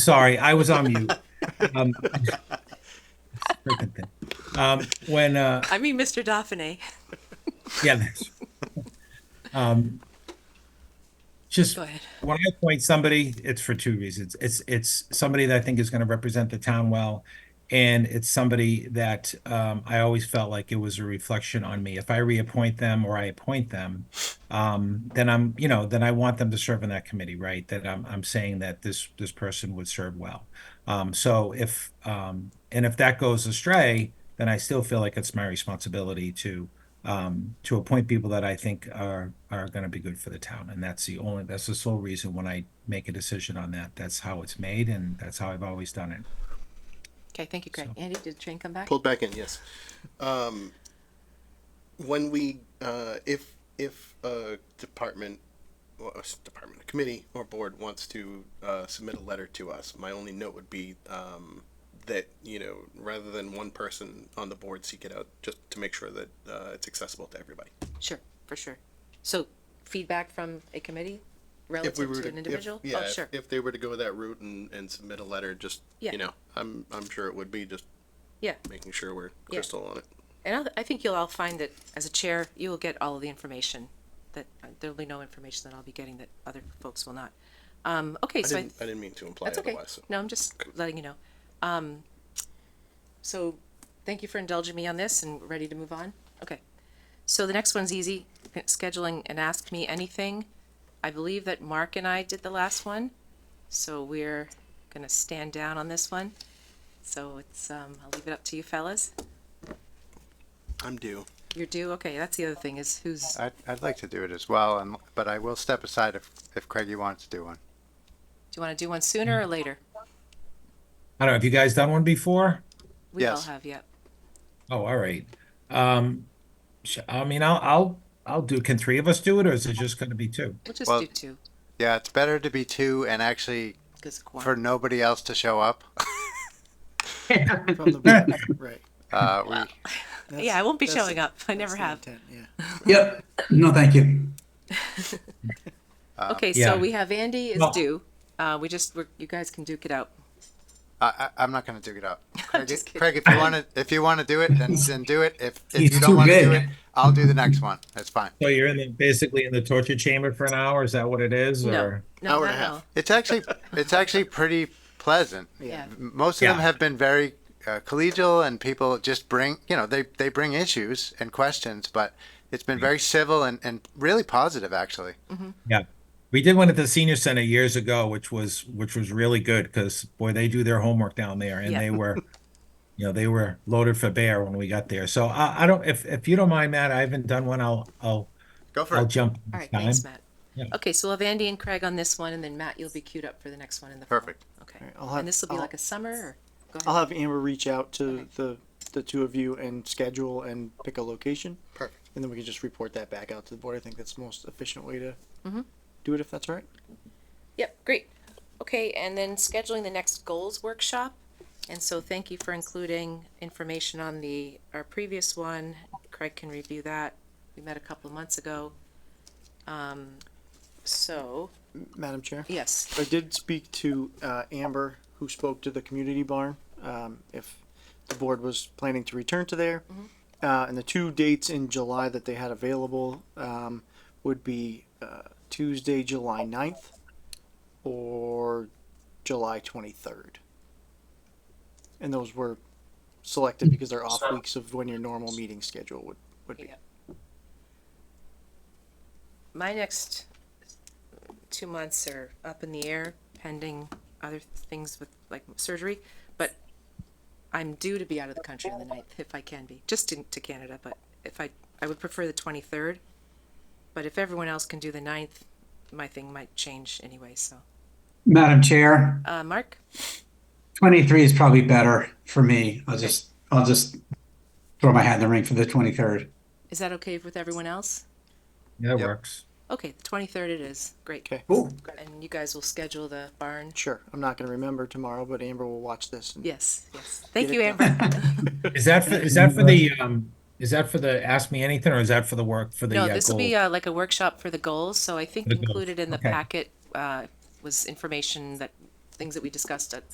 Sorry, I was on mute. Um, freaking thing. Um, when uh, I mean, Mr. Dauphine. yeah, that's, um, just Go ahead. when I appoint somebody, it's for two reasons. It's it's somebody that I think is going to represent the town well, and it's somebody that um, I always felt like it was a reflection on me. If I reappoint them or I appoint them, um, then I'm you know then I want them to serve in that committee, right? That I'm I'm saying that this this person would serve well. Um, so if um, and if that goes astray, then I still feel like it's my responsibility to um, to appoint people that I think are are going to be good for the town, and that's the only that's the sole reason when I make a decision on that. That's how it's made, and that's how I've always done it. Okay, thank you, Greg. Andy, did the train come back? pulled back in yes um, when we uh, if if a department or a department a committee or board wants to uh, submit a letter to us my only note would be um, that you know rather than one person on the board seek it out just to make sure that uh, it's accessible to everybody Sure, for sure. So feedback from a committee if we relative were to to, an if- individual? yeah Oh, if- sure. if they were to go that route and, and submit a letter just Yeah. you know i'm i'm sure it would be just Yeah. making sure we're crystal on it And I'll- I think you'll all find that as a chair, you will get all of the information that uh, there'll be no information that I'll be getting that other folks will not. Um, okay, I so I, didn't, I didn't mean to imply that's okay. otherwise so. No, I'm just letting you know. Um, so thank you for indulging me on this and we're ready to move on. Okay. So the next one's easy, scheduling and ask me anything. I believe that Mark and I did the last one, so we're gonna stand down on this one. So it's, um, I'll leave it up to you fellas. i'm due You're due, okay, that's the other thing is who's, I'd, I'd like to do it as well, and, but I will step aside if, if Craigie wants to do one. do you wanna do one sooner or later? I don't know. Have you guys done one before? We all Yes. have, yep. Oh, all right. Um, sh- I mean, I'll I'll I'll do. Can three of us do it, or is it just going to be two? We'll just Well- do two, Yeah, it's better to be two and actually cause. for nobody else to show up. from the board. right. Uh, we, That's- Yeah, I won't be that's- showing up. I never that's the have. intent, Yeah. Yep. No, thank you. Okay, yeah. so we have Andy is Well- due. Uh, we just, we're, you guys can duke it out. I, I, I'm not going to do it up. Craig, just kidding. Craig, if you want to, if you want to do it, then, then do it. If, if He's you don't too want to do good. it, I'll do the next one. That's fine. So you're in the, basically in the torture chamber for an hour. Is that what it is? No, Or no, Hour not and a half. now. It's actually, it's actually pretty pleasant. Yeah. Most of them Yeah. have been very uh, collegial, and people just bring, you know, they, they bring issues and questions, but it's been very civil and, and really positive, actually. yeah. We did one at the senior center years ago, which was which was really good because boy, they do their homework down there, and Yeah. they were, you know, they were loaded for bear when we got there. So I, I don't if if you don't mind, Matt, I haven't done one. I'll I'll Go for I'll it. jump. All right, this thanks, time. Matt. Okay, so we'll have Andy and Craig on this one, and then Matt, you'll be queued up for the next one in the fall. Perfect. Okay, right, I'll have- and this will be I'll- like a summer, or, go I'll ahead. have Amber reach out to the the two of you and schedule and pick a location, perfect and then we can just report that back out to the board. I think that's the most efficient way to Mm-hmm. do it, if that's all right. Yep, great. Okay, and then scheduling the next goals workshop. And so thank you for including information on the, our previous one. Craig can review that. We met a couple of months ago. Um, so, Madam Chair. yes, I did speak to uh, Amber, who spoke to the community barn, um, if the board was planning to return to there. Uh, and the two dates in July that they had available um, would be uh, Tuesday, July 9th or July 23rd. And those were selected because they're off weeks of when your normal meeting schedule would, would be. Yeah. my next two months are up in the air pending other things with like surgery, but I'm due to be out of the country on the ninth if I can be, just to, to Canada, but if I, I would prefer the twenty-third. But if everyone else can do the ninth, my thing might change anyway, so. Madam Chair, Uh, Mark, 23 is probably better for me. I'll just, I'll just throw my hat in the ring for the 23rd. is that okay with everyone else? Yeah, it Yep. works. Okay, the twenty-third it is, great. Okay. Cool. And you guys will schedule the barn? Sure, I'm not going to remember tomorrow, but Amber will watch this. And Yes, yes. Thank Get you, it Amber. Is that for, is that for the um is that for the ask me anything or is that for the work for the No, uh, this will goal? be uh, like a workshop for the goals, so I think The goals, included in the okay. packet uh, was information that things that we discussed at